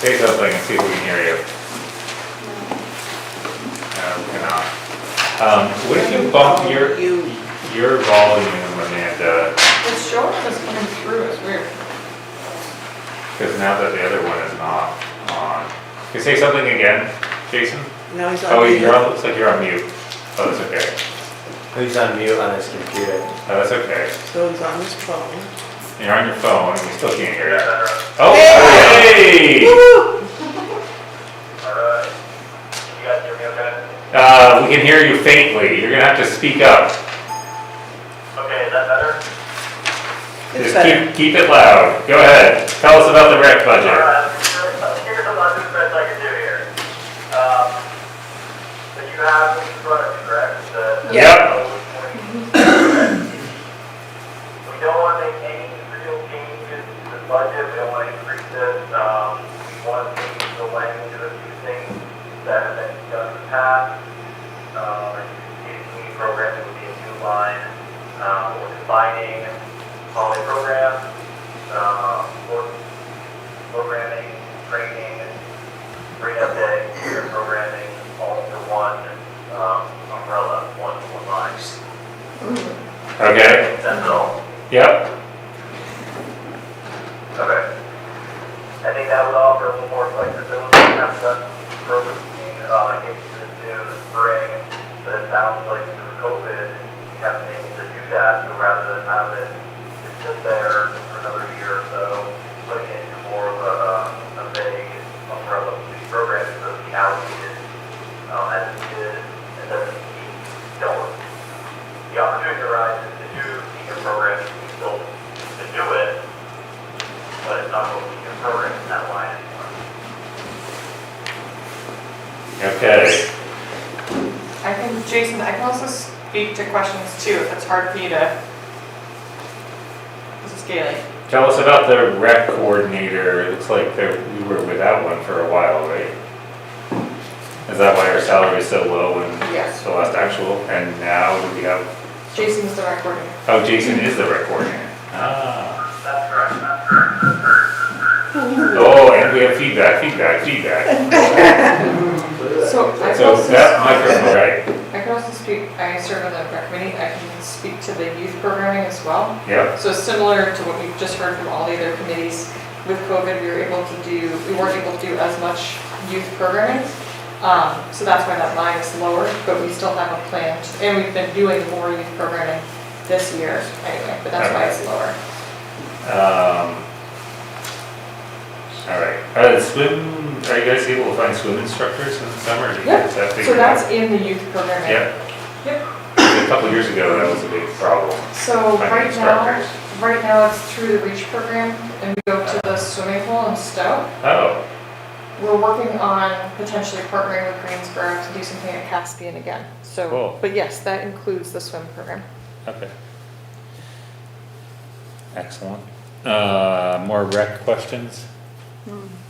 Take something and see if we can hear you. No, we cannot. Um, What if you bump your, You- your volume, Amanda, It's short, it's coming through, it's weird. because now that the other one is not on. Can you say something again, Jason? No, he's on. Oh, mute. you're on, looks like you're on mute. Oh, that's okay. Who's on mute on his computer? Oh, that's okay. So he's on his phone. You're on your phone, and we still can't hear you. uh, Oh, hey! Woo! Alright. You guys hear me okay? Uh, we can hear you faintly. You're gonna have to speak up. Okay, is that better? It's Just better. keep, keep it loud. Go ahead. Tell us about the rec budget. Alright, Uh, here's a bunch of things I can do here. Um, so you have in front of you, correct? The- Yeah. We don't want to make any real changes to the budget, we don't want to increase it, um, we want to change the language of a few things that have been done in the past. Uh, like the community program would be a new line, uh, we're defining holiday programs, uh, work programming, training, free up day, career programming, all under one, um, umbrella, one, one line. Okay? That's all. Yep. Okay. I think that would offer a little more flexibility, have done programs being obligated to do the spring, but it sounds like through COVID, we haven't been able to do that, so rather than have it just sit there for another year or so, putting it into more of a, um, a vague umbrella of these programs, so it's allocated, um, as it is, and then we don't the opportunity arises to do senior programs, we still to do it, but it's not going to be a program in that line anymore. Okay. I can, Jason, I can also speak to questions too, if it's hard for you to. This is Gailey. Tell us about the rec coordinator. It looks like there, we were without one for a while, right? Is that why our salary is so low and Yes. the last actual? And now we have, Jason's the record. oh, Jason is the rec coordinator. Ah. That's correct, that's Oh, and we have feedback, feedback, feedback. So I can So also, that I microphone, right? can also speak, I serve on the rec committee, I can speak to the youth programming as well. Yep. So similar to what we've just heard from all the other committees, with COVID, we were able to do, we weren't able to do as much youth programming. Um, so that's why that line is lower, but we still have a plan, to- and we've been doing more youth programming this year anyway, but that's why it's lower. Um, all right. Uh, swim, are you guys able to find swim instructors in the summer? Do you Yeah, guys have So figured out? that's in the youth programming. Yep. Yep. A couple years ago, that was a big problem. So Finding right now, instructors. right now it's through the REACH program and we go to the swimming pool in Stowe. Oh, We're working on potentially partnering with Greensboro to do something at Caspian again. So, Cool. but yes, that includes the swim program. okay. Excellent. Uh, more rec questions?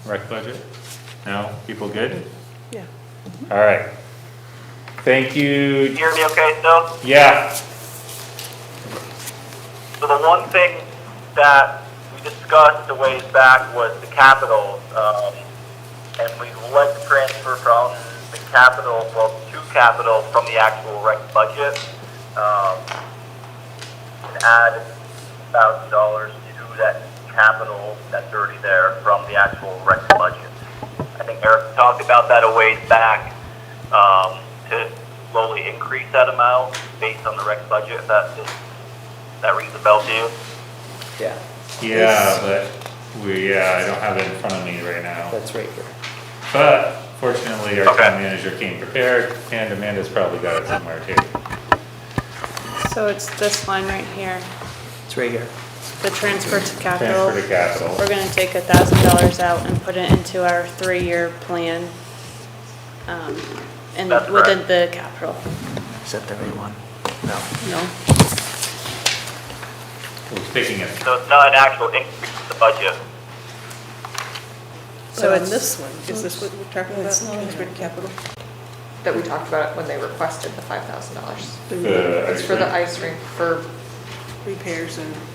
Rec budget? No? People good? Yeah. All right. Thank you. hear me okay still? Yeah. So the one thing that we discussed a ways back was the capital, um, and we'd like to transfer from the capital, well, to capital from the actual rec budget, um, and add thousand dollars to that capital that's already there from the actual rec budget. I think Eric talked about that a ways back, um, to slowly increase that amount based on the rec budget, if that is that rings a bell to you? Yeah, Yeah, but we, yeah, I don't have it in front of me right now. that's right here. But fortunately, our town Okay. manager came prepared, and Amanda's probably got it somewhere too. So it's this line right here, It's right here. the transfer to capital. Transfer to capital. We're gonna take a thousand dollars out and put it into our three-year plan. um, And That's within the capital, Is that the right one? No. no? We're sticking it. So it's not an actual increase in the budget. So But on it's- this one, is this what we're talking about? Kingsford Capital? That we talked about when they requested the five thousand dollars. The It's for the ice ice rink for Repairs and